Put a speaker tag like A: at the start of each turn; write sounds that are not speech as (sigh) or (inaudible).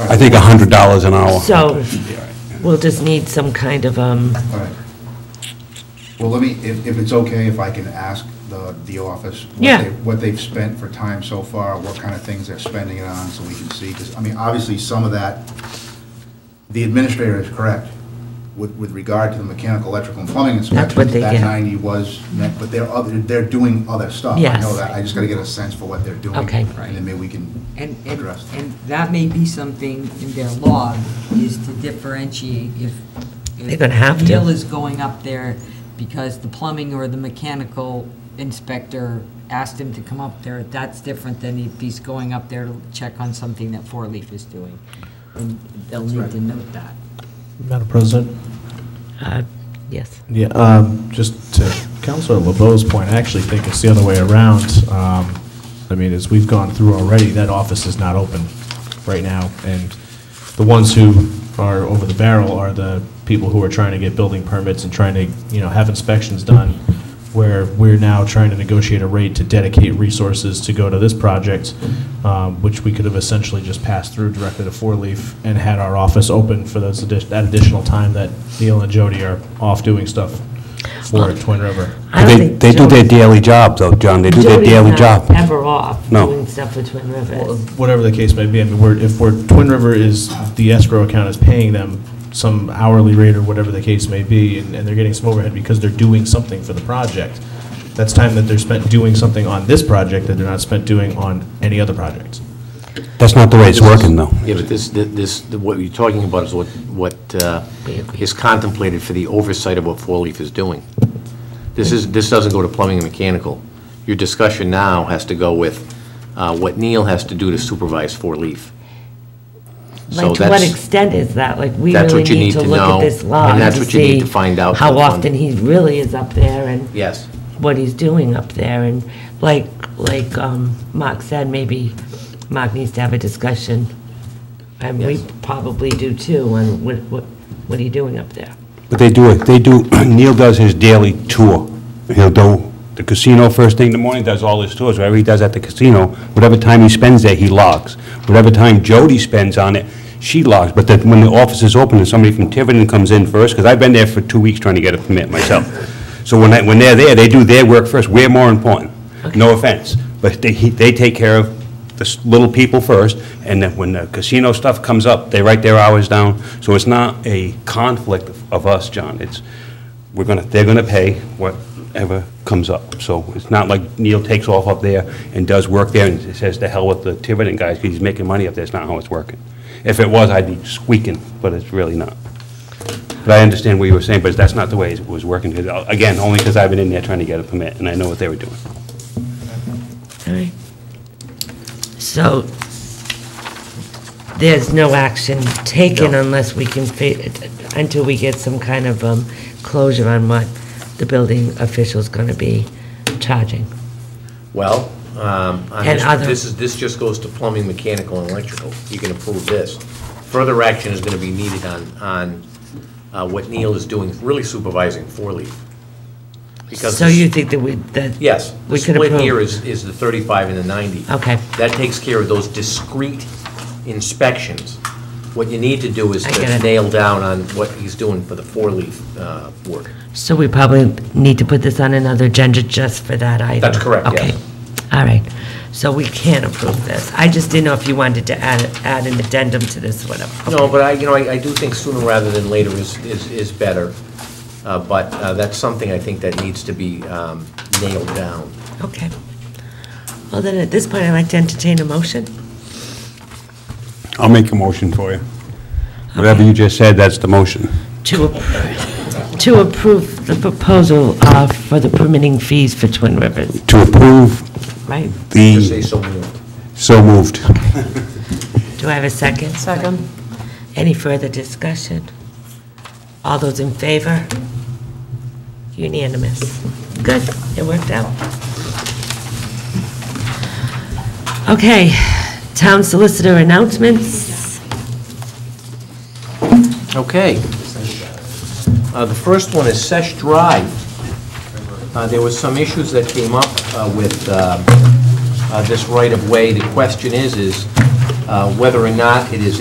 A: I think $100 an hour.
B: So we'll just need some kind of, um,
C: All right. Well, let me, if, if it's okay, if I can ask the, the office. what
B: Yeah.
C: they- What they've spent for time so far, what kind of things they're spending it on, so we can see, because, I mean, obviously, some of that, the administrator is correct with, with regard to the mechanical, electrical, and plumbing inspections.
B: what they
C: That
B: get.
C: ninety was, net, but they're other, they're doing other stuff. I know
B: Yes.
C: that, I just gotta get a sense for what they're doing.
B: Okay.
C: And then maybe we can
D: And, and,
C: address that.
D: and that may be something in their law, is to differentiate if. if
B: They're gonna have to.
D: Neil is going up there because the plumbing or the mechanical inspector asked him to come up there, that's different than if he's going up there to check on something that Four Leaf is doing. And they'll need to note that.
E: Madam President?
B: uh, yes.
E: Yeah, um, just to Counselor LeBeau's point, I actually think it's the other way around. Um, I mean, as we've gone through already, that office is not open right now, and the ones who are over the barrel are the people who are trying to get building permits and trying to, you know, have inspections done, where we're now trying to negotiate a rate to dedicate resources to go to this project, um, which we could have essentially just passed through directly to Four Leaf and had our office open for those, addi- that additional time that Neil and Jody are off doing stuff for Twin River.
B: I don't
A: They
B: think
A: they do their
B: Jody-
A: daily job, though, John, they do their
B: Jody's
A: daily
B: not
A: job.
B: Ever off
A: No.
B: doing stuff for Twin Rivers.
E: whatever the case may be, I mean, we're, if we're, Twin River is, the escrow account is paying them some hourly rate or whatever the case may be, and, and they're getting some overhead because they're doing something for the project. That's time that they're spent doing something on this project that they're not spent doing on any other project.
A: That's not the way it's working, though.
F: Yeah, but this, this, what you're talking about is what, what uh, is contemplated for the oversight of what Four Leaf is doing. This is, this doesn't go to plumbing and mechanical. Your discussion now has to go with uh, what Neil has to do to supervise Four Leaf. So
B: Like, to what
F: that's-
B: extent is that? Like, we
F: That's
B: really
F: what you
B: need to look at
F: know,
B: this law
F: and
B: and
F: that's
B: to
F: what you need
B: see
F: to find out
B: how
F: from-
B: often he really is up there and
F: Yes.
B: what he's doing up there. And like, like um, Mark said, maybe Mark needs to have a discussion, and we probably do too, on what, what, what are you doing up there?
A: But they do it, they do, (clears throat) Neil does his daily tour. He'll do the casino first thing in the morning, does all his tours, whatever he does at the casino, whatever time he spends there, he logs. Whatever time Jody spends on it, she logs, but that when the office is open and somebody from Tiverton comes in first, because I've been there for two weeks trying to get a permit myself. So when I, when they're there, they do their work first, we're more important, no offense. But they, he- they take care of the s- little people first, and then when the casino stuff comes up, they write their hours down. So it's not a conflict of- of us, John. It's, we're gonna, they're gonna pay whatever comes up. So it's not like Neil takes off up there and does work there and says, "To hell with the Tiverton guys," because he's making money up there. It's not how it's working. If it was, I'd be squeaking, but it's really not. But I understand what you were saying, but that's not the way it was working. 'Cause, uh, Again, only because I've been in there trying to get a permit, and I know what they were doing.
B: All right. So there's no action taken unless we can, fi- until we get some kind of um, closure on what the building official's going to be charging.
F: Well, um, on
B: And
F: this-
B: other-
F: this is, this just goes to plumbing, mechanical, and electrical. You can approve this. Further action is going to be needed on, on uh, what Neil is doing, really supervising Four Leaf. Because
B: So you think that we, that?
F: Yes. The
B: We could
F: split here
B: approve?
F: is, is the 35 and the 90.
B: Okay.
F: That takes care of those discrete inspections. What you need to do is
B: I
F: to
B: get it.
F: nail down on what he's doing for the four-leaf uh, work.
B: So we probably need to put this on another agenda just for that item?
F: That's correct, yes.
B: Okay, all right. So we can approve this. I just didn't know if you wanted to add, add an addendum to this, whatever.
F: No, but I, you know, I I do think sooner rather than later is, is is better, Uh, but uh, that's something I think that needs to be um, nailed down.
B: Okay. Well, then, at this point, I'd like to entertain a motion.
A: I'll make a motion for you. Whatever you just said, that's the motion.
B: To, appro- to approve the proposal uh, for the permitting fees for Twin Rivers,
A: To approve
B: right?
F: Just say
A: the,
F: so moved.
A: so moved.
B: Do I have a second? Second. Any further discussion? All those in favor? Unanimous. Good, it worked out. Okay, town solicitor announcements.
F: Okay. Uh, The first one is Sesh Drive. Uh, There was some issues that came up uh, with uh, uh, this right-of-way. The question is, is uh, whether or not it is